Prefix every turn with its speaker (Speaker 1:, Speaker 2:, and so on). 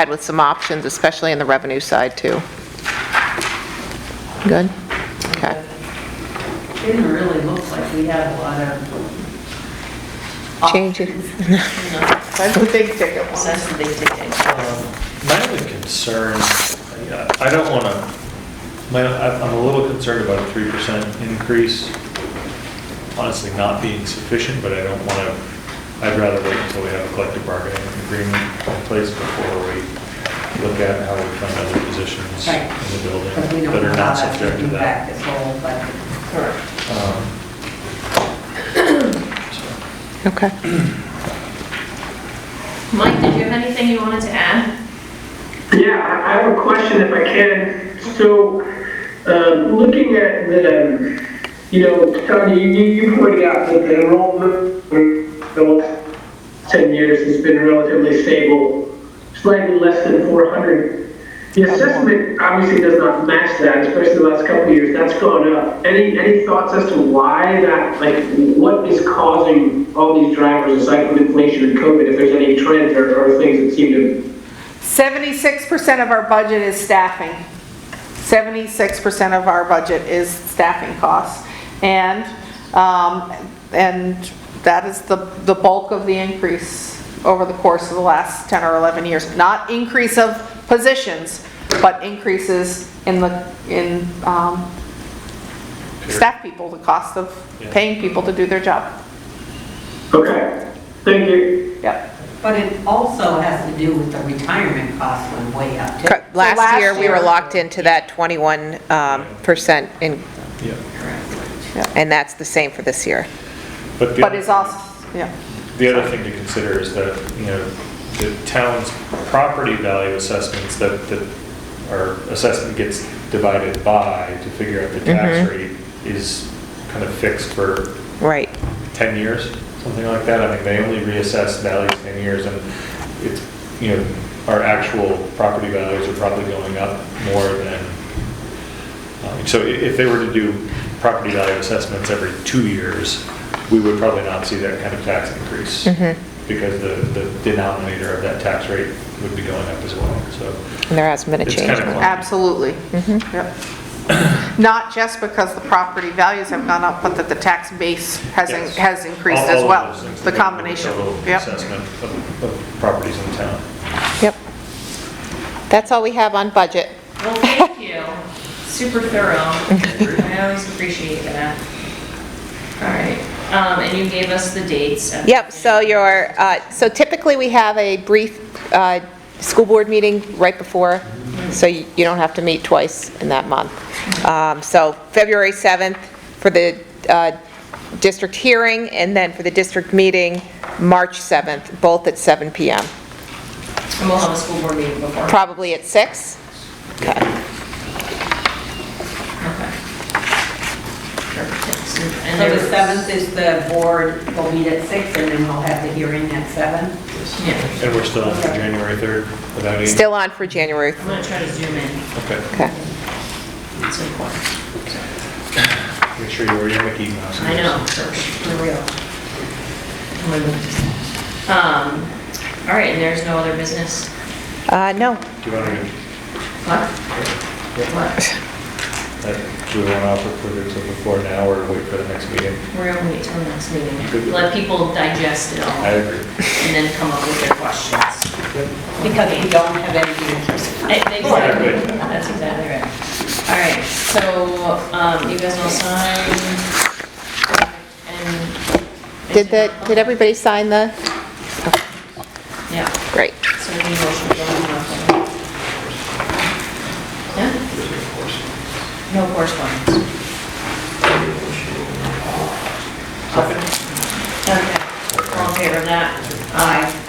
Speaker 1: had with some options, especially in the revenue side, too. Good? Okay.
Speaker 2: Didn't really look like we had a lot of.
Speaker 1: Changes.
Speaker 2: That's the big ticket one. That's the big ticket.
Speaker 3: Um, My only concern, I- I don't want to, my, I'm I'm a little concerned about a three percent increase. Honestly, not being sufficient, but I don't want to, I'd rather wait until we have a collective bargaining agreement in place before we look at how we fund other positions
Speaker 2: Right.
Speaker 3: in the building
Speaker 2: Because we don't
Speaker 3: that
Speaker 2: know
Speaker 3: are
Speaker 2: how
Speaker 3: not
Speaker 2: that's going
Speaker 3: subject
Speaker 2: to
Speaker 3: to
Speaker 2: impact
Speaker 3: that.
Speaker 2: this whole budget. Correct.
Speaker 3: So,
Speaker 1: Okay.
Speaker 4: Mike, did you have anything you wanted to add?
Speaker 5: Yeah, I I have a question if I can. So, um, looking at the, um, you know, Tony, you, you you pointed out that the enrollment for the last 10 years has been relatively stable, slightly less than 400. The assessment obviously does not match that, especially the last couple of years. That's gone up. Any any thoughts as to why that, like, what is causing all these drivers aside from inflation and COVID? If there's any trends or, or things that seem to
Speaker 6: 76% of our budget is staffing. 76% of our budget is staffing costs. And, um, and that is the, the bulk of the increase over the course of the last 10 or 11 years. Not increase of positions, but increases in the, in, um, staff people, the cost of paying people to do their job.
Speaker 5: Okay, thank you.
Speaker 6: Yep.
Speaker 2: But it also has to do with the retirement costs went way up too.
Speaker 1: Correct. Last
Speaker 6: last
Speaker 1: year, we were
Speaker 6: year-
Speaker 1: locked into that 21%, um, percent in-
Speaker 3: Yeah,
Speaker 1: and that's the same for this year.
Speaker 3: but the.
Speaker 6: But it's also, yeah.
Speaker 3: The other thing to consider is that, you know, the town's property value assessments that, that our assessment gets divided by to figure out the tax rate is kind of fixed for
Speaker 1: Right.
Speaker 3: 10 years, something like that. I mean, they only reassess values 10 years and it's, you know, our actual property values are probably going up more than, um, so i- if they were to do property value assessments every two years, we would probably not see that kind of tax increase because the, the denominator of that tax rate would be going up as well, so.
Speaker 1: And there hasn't been a
Speaker 3: it's
Speaker 1: change.
Speaker 3: kinda clunky.
Speaker 6: Absolutely.
Speaker 1: Mm-hmm.
Speaker 6: Yep. Not just because the property values have gone up, but that the tax base has, in-
Speaker 3: Yes.
Speaker 6: has increased
Speaker 3: All-
Speaker 6: as
Speaker 3: all of
Speaker 6: well.
Speaker 3: those things
Speaker 6: The
Speaker 3: that go with
Speaker 6: combination,
Speaker 3: total
Speaker 6: yep.
Speaker 3: Assessment of, of properties in town.
Speaker 1: Yep. That's all we have on budget.
Speaker 4: Well, thank you. Super thorough. I always appreciate that. All right, um, and you gave us the dates. at the
Speaker 1: Yep, so
Speaker 4: beginning.
Speaker 1: your, uh, so typically we have a brief uh, school board meeting right before, so you you don't have to meet twice in that month. Um, So February 7th for the uh, district hearing, and then for the district meeting, March 7th, both at 7 PM.
Speaker 4: And we'll have a school board meeting before.
Speaker 1: Probably at 6? Okay.
Speaker 4: Okay. Perfect.
Speaker 2: So
Speaker 4: And there
Speaker 2: the
Speaker 4: was-
Speaker 2: 7th is the board, will meet at 6 and then we'll have the hearing at 7.
Speaker 4: Yeah,
Speaker 3: And we're still on for January 3rd without any.
Speaker 1: Still on for January,
Speaker 4: I'm gonna try to zoom in.
Speaker 3: Okay.
Speaker 1: okay.
Speaker 4: It's important.
Speaker 3: Make sure you wear your Mickey Mouse.
Speaker 4: I know, for real. Um, all right, and there's no other business?
Speaker 1: Uh, No,
Speaker 3: Do you want to,
Speaker 4: What? What?
Speaker 3: uh, do we want to offer further to before now or wait for the next meeting?
Speaker 4: We're gonna wait till the next meeting. Let people digest it all
Speaker 3: I
Speaker 4: and
Speaker 3: agree.
Speaker 4: then come up with their questions.
Speaker 2: Because we don't have anything in person.
Speaker 4: Eh, Exactly, that's exactly right. All right, so, um, you guys all sign. and-
Speaker 1: did the, did everybody sign the,
Speaker 4: Yeah,
Speaker 1: great.
Speaker 4: so we need a motion to go into nothing. Yeah? No correspondence. Okay, all in favor of that? Aye.